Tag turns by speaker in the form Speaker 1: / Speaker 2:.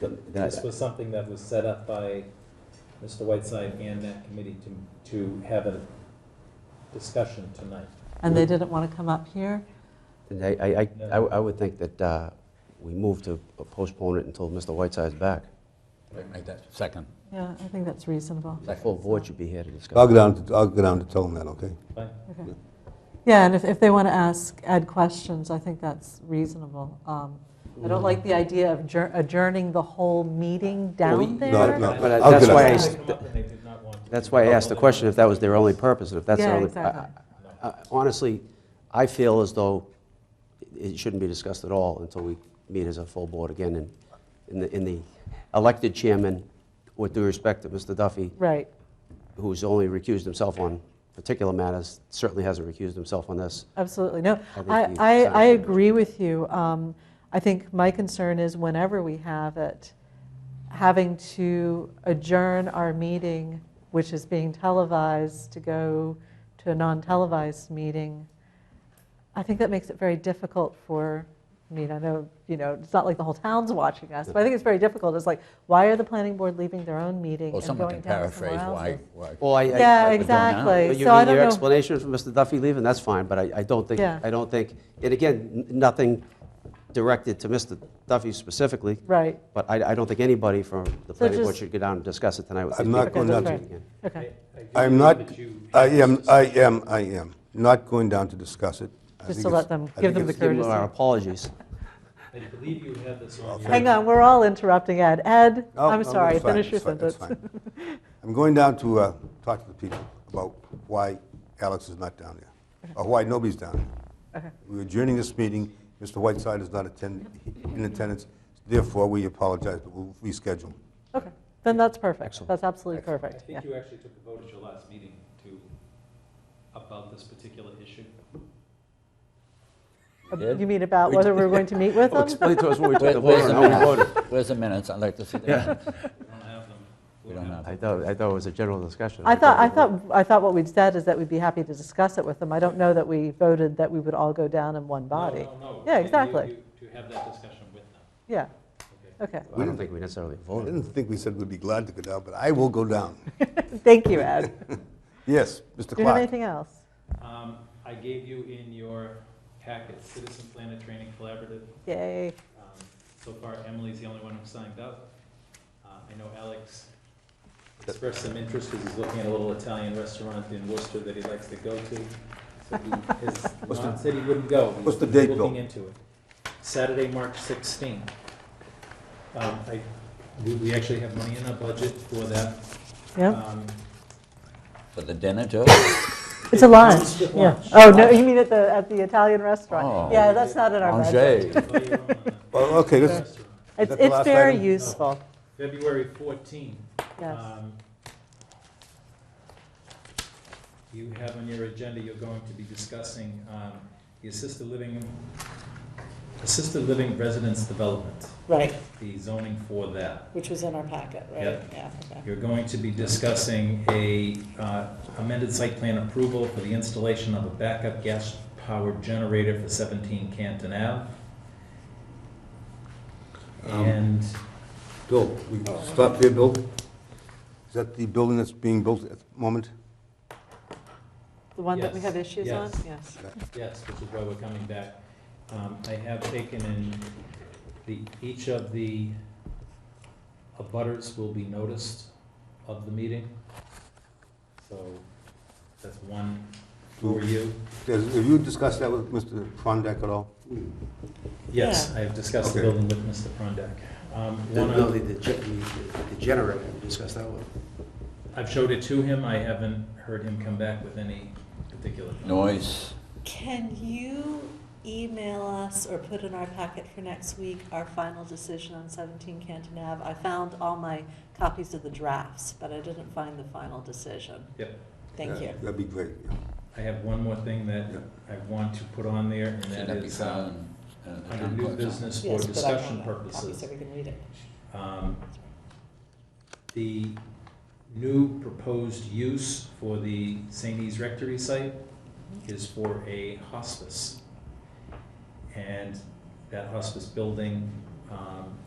Speaker 1: But then I-
Speaker 2: This was something that was set up by Mr. Whiteside and that committee to, to have a discussion tonight.
Speaker 3: And they didn't want to come up here?
Speaker 1: then I, I, I- I I would think that uh, we move to postpone it until Mr. Whiteside's back.
Speaker 4: Make that second.
Speaker 3: Yeah, I think that's reasonable.
Speaker 1: The full board should be here to discuss.
Speaker 5: I'll go down, to- I'll go down to tell them that, okay?
Speaker 2: Fine?
Speaker 3: Okay. Yeah, and if, if they want to ask, add questions, I think that's reasonable. Um, I don't like the idea of adjour- adjourning the whole meeting down
Speaker 5: No,
Speaker 3: there.
Speaker 5: no.
Speaker 1: But
Speaker 5: I'll
Speaker 1: that's
Speaker 5: get up.
Speaker 1: why I
Speaker 2: They
Speaker 1: s-
Speaker 2: come up and they did not want to.
Speaker 1: That's why I asked the question, if that was their only purpose, and if that's their
Speaker 3: Yeah,
Speaker 1: only...
Speaker 3: exactly.
Speaker 1: I- I- I- Honestly, I feel as though it shouldn't be discussed at all until we meet as a full board again, and, and the- and the elected chairman, with due respect to Mr. Duffy,
Speaker 3: Right,
Speaker 1: who's only recused himself on particular matters, certainly hasn't recused himself on this.
Speaker 3: absolutely. No,
Speaker 1: I think
Speaker 3: I,
Speaker 1: you
Speaker 3: I,
Speaker 1: said
Speaker 3: I
Speaker 1: it.
Speaker 3: agree with you. Um, I think my concern is whenever we have it, having to adjourn our meeting, which is being televised, to go to a non-televised meeting, I think that makes it very difficult for, I mean, I know, you know, it's not like the whole town's watching us, but I think it's very difficult. It's like, why are the planning board leaving their own meeting
Speaker 4: Well,
Speaker 3: and
Speaker 4: someone can
Speaker 3: going down to someone
Speaker 4: paraphrase why,
Speaker 3: else's?
Speaker 4: why.
Speaker 1: Well, I- I-
Speaker 3: Yeah,
Speaker 1: I-
Speaker 3: exactly.
Speaker 1: But you
Speaker 3: So I
Speaker 1: mean
Speaker 3: don't
Speaker 1: your
Speaker 3: know.
Speaker 1: explanation for Mr. Duffy leaving, that's fine, but I, I don't think,
Speaker 3: Yeah.
Speaker 1: I don't think, and again, n- nothing directed to Mr. Duffy specifically,
Speaker 3: Right,
Speaker 1: but I, I don't think anybody from the planning board
Speaker 3: just-
Speaker 1: should go down and discuss it tonight with these
Speaker 5: I'm not
Speaker 1: people.
Speaker 3: going down to-
Speaker 1: Again.
Speaker 3: okay.
Speaker 5: I'm not, I am, I am, I am not going down to discuss it. I
Speaker 3: Just
Speaker 5: think
Speaker 3: to
Speaker 5: it's-
Speaker 3: let them-
Speaker 5: I
Speaker 3: give
Speaker 5: think
Speaker 3: them the
Speaker 5: it's-
Speaker 1: Give them our apologies.
Speaker 2: I believe you have this on your.
Speaker 3: Hang on, we're all interrupting Ed. Ed,
Speaker 5: No, Oh, no,
Speaker 3: I'm
Speaker 5: it's
Speaker 3: sorry,
Speaker 5: fine,
Speaker 3: finish your
Speaker 5: it's fine, it's
Speaker 3: sentence.
Speaker 5: fine. I'm going down to uh, talk to the people about why Alex is not down there, or why nobody's down there. We're adjourning this meeting, Mr. Whiteside is not attend- in attendance, therefore, we apologize, but we'll reschedule.
Speaker 3: Okay, then that's perfect.
Speaker 1: Excellent.
Speaker 3: That's absolutely
Speaker 2: I
Speaker 3: perfect, yeah.
Speaker 2: think you actually took a vote at your last meeting to, about this particular issue.
Speaker 3: You mean about whether we're going to meet with
Speaker 1: Well,
Speaker 3: them?
Speaker 1: Oh, Explain to us what we took the
Speaker 4: Where-
Speaker 1: vote
Speaker 4: Where's
Speaker 1: on.
Speaker 4: the
Speaker 1: how we voted.
Speaker 4: minutes? Where's the minutes? I'd like to see the minutes.
Speaker 2: We don't have them.
Speaker 4: We don't have.
Speaker 1: I thought, I thought it was a general discussion.
Speaker 3: I thought, I
Speaker 1: it was-
Speaker 3: thought, I thought what we'd said is that we'd be happy to discuss it with them. I don't know that we voted that we would all go down in one body.
Speaker 2: No, no, no.
Speaker 3: Yeah,
Speaker 2: You- you-
Speaker 3: exactly.
Speaker 2: you- To have that discussion with them.
Speaker 3: Yeah,
Speaker 2: Okay.
Speaker 3: okay.
Speaker 1: I don't think we necessarily
Speaker 5: I
Speaker 1: voted.
Speaker 5: didn't think we said we'd be glad to go down, but I will go down.
Speaker 3: Thank you, Ed.
Speaker 5: Yes, Mr.
Speaker 3: Do you have
Speaker 5: Clark.
Speaker 3: anything else?
Speaker 2: Um, I gave you in your packet, Citizen Planet Training Collaborative.
Speaker 3: Yay.
Speaker 2: Um, So far, Emily's the only one who signed up. Uh, I know Alex expressed some interest because he's looking at a little Italian restaurant in Worcester that he likes to go to. So he has
Speaker 5: What's the-
Speaker 2: not said he wouldn't go. He's
Speaker 5: what's the date, Bill?
Speaker 2: Looking into it. Saturday, March 16th. Um, I- We we actually have money in our budget for that.
Speaker 3: Yeah,
Speaker 2: Um,
Speaker 4: For the dinner too?
Speaker 3: it's a lunch,
Speaker 2: It's a
Speaker 3: yeah.
Speaker 2: lunch.
Speaker 3: Oh, no, you mean at the, at the Italian restaurant?
Speaker 4: Oh.
Speaker 3: Yeah, that's not in our budget.
Speaker 4: Angé.
Speaker 2: buy your own, uh,
Speaker 5: Well, okay, this,
Speaker 2: restaurant.
Speaker 3: It's,
Speaker 5: that the
Speaker 3: it's
Speaker 5: last
Speaker 3: very
Speaker 5: item?
Speaker 3: useful,
Speaker 2: February 14th.
Speaker 3: yes.
Speaker 2: Um, You have on your agenda, you're going to be discussing um, the assisted living, assisted living residence development,
Speaker 6: Right,
Speaker 2: the zoning for that.
Speaker 6: which was in our packet, right?
Speaker 2: Yep.
Speaker 6: Yeah. okay.
Speaker 2: You're going to be discussing a uh, amended site plan approval for the installation of a backup gas-powered generator for 17 Canton Ave.
Speaker 5: Um,
Speaker 2: And
Speaker 5: Bill, we stop there, Bill? Is that the building that's being built at the moment?
Speaker 3: The one that we
Speaker 2: yes,
Speaker 3: have issues on?
Speaker 2: yes.
Speaker 3: Yes.
Speaker 2: Yes, which is why we're coming back. Um, I have taken in, the, each of the abutters will be noticed of the meeting. So that's one for you.
Speaker 5: Does- Have you discussed that with Mr. Prondak at all?
Speaker 2: Yes, I have discussed the
Speaker 5: Okay.
Speaker 2: building with Mr. Prondak. Um,
Speaker 1: The
Speaker 2: one of-
Speaker 1: ability to ge- the generator, we discussed that one.
Speaker 2: I've showed it to him. I haven't heard him come back with any particular.
Speaker 4: Noise.
Speaker 6: Can you email us or put in our packet for next week our final decision on 17 Canton Ave? I found all my copies of the drafts, but I didn't find the final decision.
Speaker 2: Yep.
Speaker 6: Thank
Speaker 5: Yeah,
Speaker 6: you.
Speaker 5: That'd be great. yeah.
Speaker 2: I have one more thing that I want to put on there, and
Speaker 4: Should
Speaker 2: that
Speaker 4: that be
Speaker 2: is, uh,
Speaker 4: found? uh, the
Speaker 2: under
Speaker 4: town
Speaker 2: new
Speaker 4: clerk's office?
Speaker 2: business for
Speaker 6: Yes, but I want
Speaker 2: discussion
Speaker 6: a copy
Speaker 2: purposes.
Speaker 6: So we can read it.
Speaker 2: Um, The new proposed use for the St. E's Rectory site is for a hospice. And that hospice building um,